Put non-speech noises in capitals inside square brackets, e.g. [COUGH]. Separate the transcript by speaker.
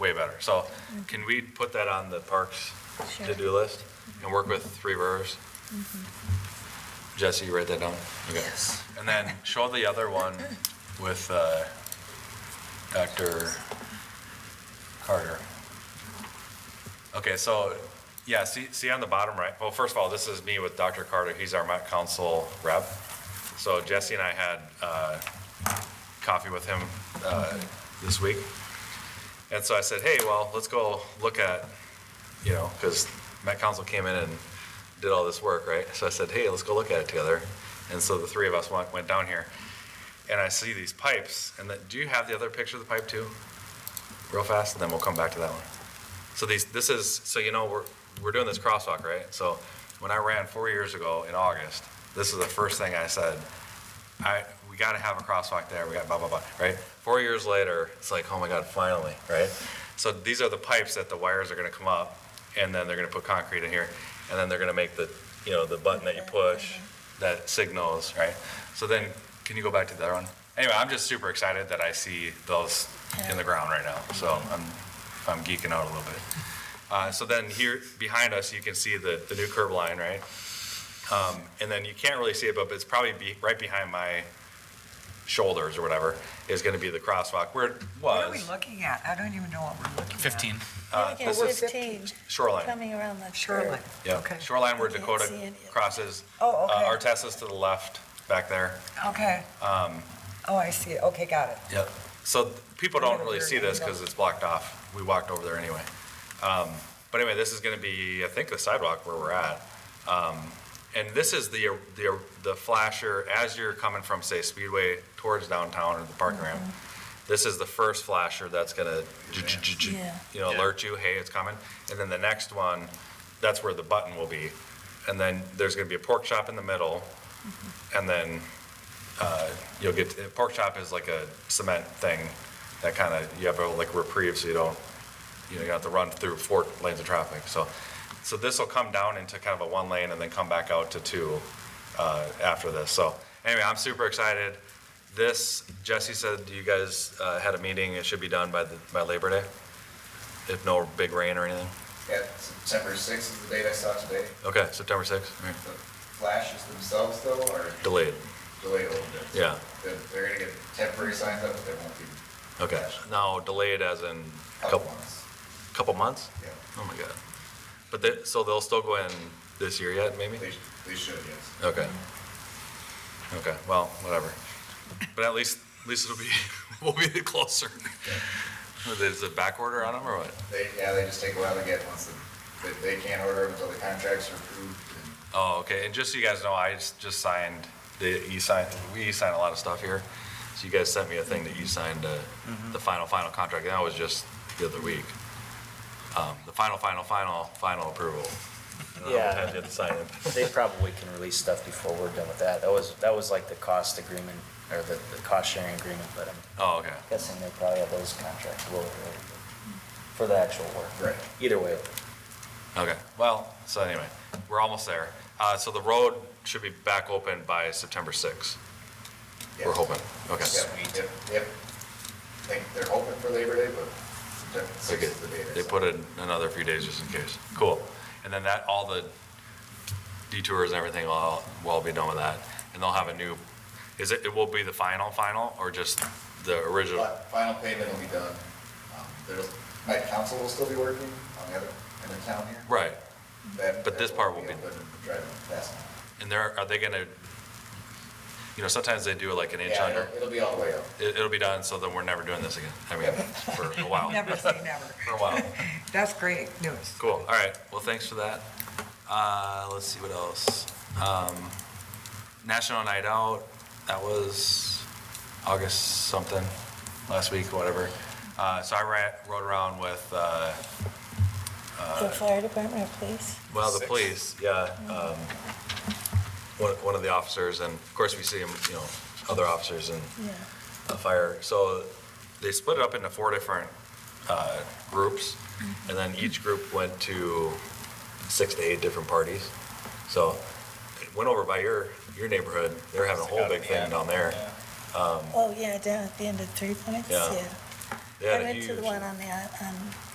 Speaker 1: whatever. So can we put that on the parks
Speaker 2: Sure.
Speaker 1: to-do list and work with Three Rivers? Jesse, you write that down? Okay.
Speaker 3: Yes.
Speaker 1: And then show the other one with uh, Dr. Carter. Okay, so, yeah, see, see on the bottom right, well, first of all, this is me with Dr. Carter, he's our Met Council rep. So Jesse and I had uh, coffee with him uh, this week. And so I said, hey, well, let's go look at, you know, because Met Council came in and did all this work, right? So I said, hey, let's go look at it together. And so the three of us went, went down here, and I see these pipes, and that, do you have the other picture of the pipe too? Real fast, and then we'll come back to that one. So these, this is, so you know, we're, we're doing this crosswalk, right? So when I ran four years ago in August, this is the first thing I said, I, we gotta have a crosswalk there, we got blah, blah, blah, right? Four years later, it's like, oh my God, finally, right? So these are the pipes that the wires are gonna come up, and then they're gonna put concrete in here, and then they're gonna make the, you know, the button that you push that signals, right? So then, can you go back to the other one? Anyway, I'm just super excited that I see those in the ground right now, so I'm, I'm geeking out a little bit. Uh, so then here, behind us, you can see the, the new curb line, right? Um, and then you can't really see it, but it's probably be, right behind my shoulders or whatever, is gonna be the crosswalk where it
Speaker 3: What are we
Speaker 1: was.
Speaker 3: looking at? I don't even know what we're looking at.
Speaker 4: 15.
Speaker 1: Uh,
Speaker 2: Again,
Speaker 1: this is
Speaker 2: 15,
Speaker 1: Shoreline,
Speaker 2: coming around the curve.
Speaker 3: Shoreline.
Speaker 1: yeah,
Speaker 3: Okay.
Speaker 1: shoreline where
Speaker 2: I can't
Speaker 1: Dakota
Speaker 2: see any of it.
Speaker 1: crosses.
Speaker 3: Oh,
Speaker 1: Uh,
Speaker 3: okay.
Speaker 1: Artessa's to the left, back there.
Speaker 3: Okay.
Speaker 1: Um,
Speaker 3: Oh, I see it. Okay, got it.
Speaker 1: Yep. So th- people don't really
Speaker 3: Over
Speaker 1: see this
Speaker 3: and
Speaker 1: because it's blocked off. We walked over there anyway. Um, But anyway, this is going to be, I think, the sidewalk where we're at. Um, And this is the, the, the flasher, as you're coming from, say, Speedway towards downtown or the parking ramp. This is the first flasher that's going to,
Speaker 2: Yeah.
Speaker 1: you know, alert you, hey, it's coming. And then the next one, that's where the button will be. And then there's going to be a pork chop in the middle. And then uh, you'll get, pork chop is like a cement thing that kind of, you have a like reprieve so you don't, you know, you don't have to run through four lanes of traffic. So, so this will come down into kind of a one lane and then come back out to two uh, after this. So anyway, I'm super excited. This, Jesse said you guys uh, had a meeting, it should be done by, the by Labor Day? If no big rain or anything?
Speaker 5: Yeah, September sixth is the date I saw today.
Speaker 1: Okay, September 6th?
Speaker 5: The flashes themselves though are
Speaker 1: Delayed,
Speaker 5: delayed a little bit.
Speaker 1: yeah,
Speaker 5: They're, they're gonna get temporary signs up, but they won't be
Speaker 1: okay. Now, delayed as in a
Speaker 5: up
Speaker 1: couple,
Speaker 5: ones.
Speaker 1: couple months?
Speaker 5: Yeah,
Speaker 1: Oh my god. But they, so they'll still go in this year yet, maybe?
Speaker 5: they, they should, yes.
Speaker 1: Okay. Okay, well, whatever. But at least, at least it'll be, [LAUGHS] we'll be the closer. Is it back order on them or what?
Speaker 5: They, yeah, they just take a while to get once, the- they, they can't order them until the contracts are approved. and-
Speaker 1: Oh, okay, and just so you guys know, I just just signed the e-sign, we e-sign a lot of stuff here. So you guys sent me a thing that you signed, uh, the final, final contract, and that was just the other week. Um, The final, final, final, final approval. And then
Speaker 4: Yeah.
Speaker 1: I had to sign it.
Speaker 4: They probably can release stuff before we're done with that. That was, that was like the cost agreement, or the, the cost sharing agreement, but I'm
Speaker 1: Oh, okay.
Speaker 4: guessing they probably have those contracts rolled over for the actual work.
Speaker 5: Right.
Speaker 4: Either way,
Speaker 1: Okay, well, so anyway, we're almost there. Uh, so the road should be back open by September 6th, we're
Speaker 5: yeah.
Speaker 1: hoping. Okay.
Speaker 5: Yeah, yep, yep. Like, they're hoping for Labor Day, but September
Speaker 1: Okay.
Speaker 5: sixth is the date. I
Speaker 1: They
Speaker 5: saw.
Speaker 1: put in another few days just in case. Cool. And then that, all the detours and everything will, all- will all be done with that. And they'll have a new, is it, it will be the final, final, or just the original?
Speaker 5: Fi- Final payment will be done. Um, There's, my council will still be working on the other, in the town here.
Speaker 1: Right.
Speaker 5: That-
Speaker 1: But
Speaker 5: that
Speaker 1: this part will be-
Speaker 5: open and Driving fast.
Speaker 1: And there, are they gonna, you know, sometimes they do like an inch
Speaker 5: Yeah,
Speaker 1: under.
Speaker 5: it'll- It'll be all the way up.
Speaker 1: It, it'll be done, so then we're never doing this again. I
Speaker 5: [LAUGHS]
Speaker 1: mean, for a while.
Speaker 3: Never say never.
Speaker 1: [LAUGHS] For a while.
Speaker 3: That's great news.
Speaker 1: Cool, all right, well, thanks for that. Uh, let's see what else. Um, National Night Out, that was August something, last week, whatever. Uh, so I ran, rode around with, uh,
Speaker 2: The fire department or police?
Speaker 1: well, the
Speaker 5: Six.
Speaker 1: police, yeah, um, one, one of the officers, and of course, we see him, you know, other officers and
Speaker 2: Yeah.
Speaker 1: a fire. So they split it up into four different uh, groups, and then each group went to six to eight different parties. So it went over by your, your neighborhood, they're having a whole big thing down there.
Speaker 2: Oh, yeah, down at the end of Three Points,
Speaker 1: Yeah.
Speaker 2: yeah.
Speaker 1: They had a
Speaker 2: I went to
Speaker 1: huge-
Speaker 2: the one on the, on